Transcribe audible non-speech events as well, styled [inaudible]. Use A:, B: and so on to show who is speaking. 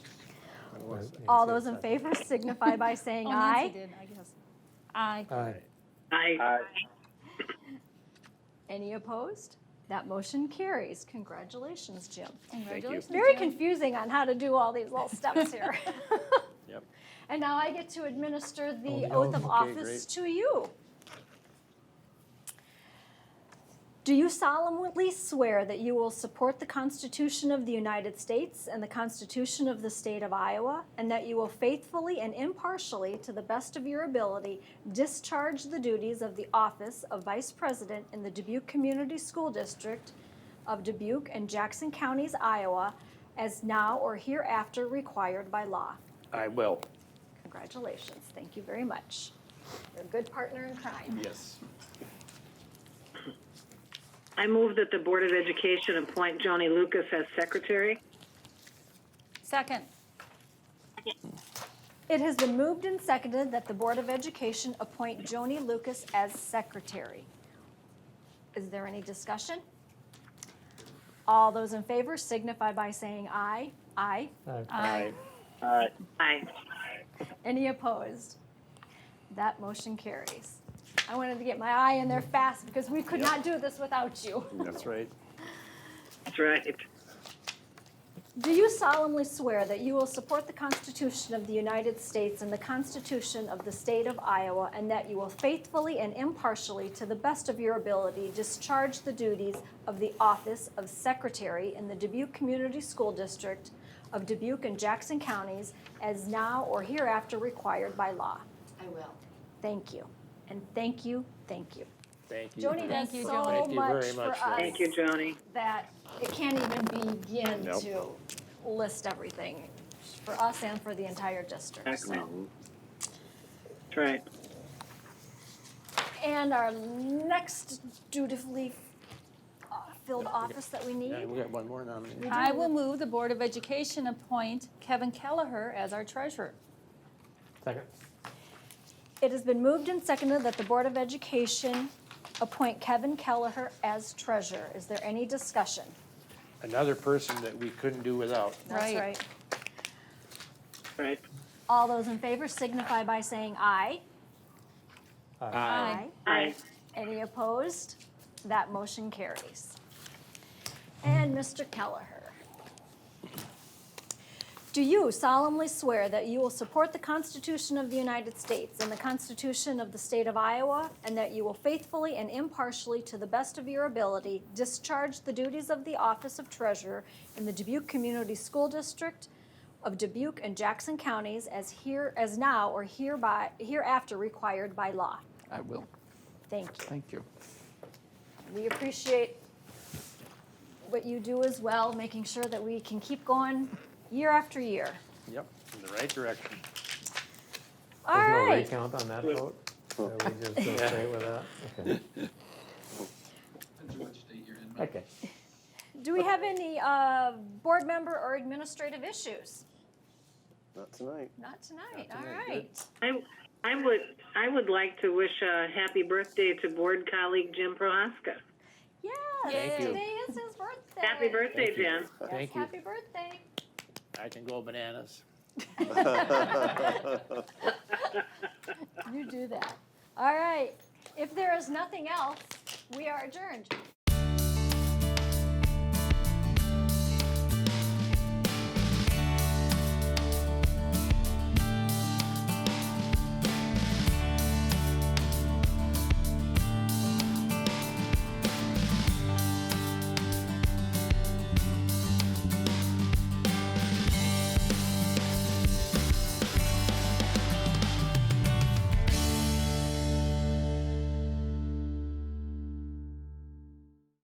A: was.
B: All those in favor signify by saying
C: Oh, Nancy
B: aye.
C: did, I guess. Aye.
A: Aye.
D: Aye.
B: Any opposed? That motion carries. Congratulations, Jim.
C: Congratulations.
B: Very
C: Jen.
B: confusing on how to do all these little steps here.
D: Yep.
B: And now I get to administer
A: Oh,
B: the
A: the
B: oath
A: oath.
B: of
A: Okay,
B: office to you. Do you solemnly swear that you will support the Constitution of the United States and the Constitution of the State of Iowa, and that you will faithfully and impartially, to the best of your ability, discharge the duties of the office of Vice President in the Dubuque Community School District of Dubuque and Jackson Counties, Iowa, as now or hereafter required by law?
D: I will.
B: Congratulations. Thank you very much. You're a good partner in crime.
D: Yes.
E: I move that the Board of Education appoint Johnny Lucas as secretary.
C: Second.
B: It has been moved and seconded that the Board of Education appoint Joni Lucas as secretary. Is there any discussion? All those in favor signify by saying aye. Aye.
D: Aye.
E: Aye.
B: Any opposed? That motion carries. I wanted to get my eye in there fast because we could not do this without you.
D: That's right.
E: That's right.
B: Do you solemnly swear that you will support the Constitution of the United States and the Constitution of the State of Iowa, and that you will faithfully and impartially, to the best of your ability, discharge the duties of the office of Secretary in the Dubuque Community School District of Dubuque and Jackson Counties as now or hereafter required by law?
F: I will.
B: Thank you. And thank you, thank you.
D: Thank you.
B: Joni does
C: Thank you,
B: so
C: Joni.
D: Thank you
B: much
D: very
B: for
D: much,
B: us
D: Joni.
E: Thank you, Johnny.
B: that it can't even begin
D: Nope.
B: to list everything for us and for the entire district. so.
E: Excellent. That's right.
B: And our next dutifully uh, filled office that we
D: Yeah,
B: need,
D: we got one more nominee.
C: I will move the Board of Education appoint Kevin Kelleher as our treasurer.
A: Second.
B: it has been moved and seconded that the Board of Education appoint Kevin Kelleher as treasurer. Is there any discussion?
D: Another person that we couldn't do without.
B: That's
C: Right.
B: right.
E: Right.
B: All those in favor signify by saying aye. Aye.
E: Aye.
B: Any opposed? That motion carries. And Mr. Kelleher. Do you solemnly swear that you will support the Constitution of the United States and the Constitution of the State of Iowa, and that you will faithfully and impartially, to the best of your ability, discharge the duties of the Office of Treasurer in the Dubuque Community School District of Dubuque and Jackson Counties as here, as now or hereby, hereafter required by law?
D: I will.
B: Thank you.
D: Thank you.
B: We appreciate what you do as well, making sure that we can keep going year after year.
D: Yep, in the right direction.
B: All
A: There's no
B: right.
A: recount on that vote? So we just go straight with that? Okay.
D: [laughs]
A: Okay.
B: Do we have any uh, board member or administrative issues?
D: Not tonight.
B: Not tonight. All
D: tonight, good.
B: right.
E: I, I would, I would like to wish a happy birthday to board colleague Jim Prohaska.
B: Yes.
C: Thank you.
B: Today is his birthday.
E: Happy birthday, Jim.
B: Yes,
D: Thank you.
B: Happy birthday.
D: I can go bananas.
B: You do that. All right. If there is nothing else, we are adjourned.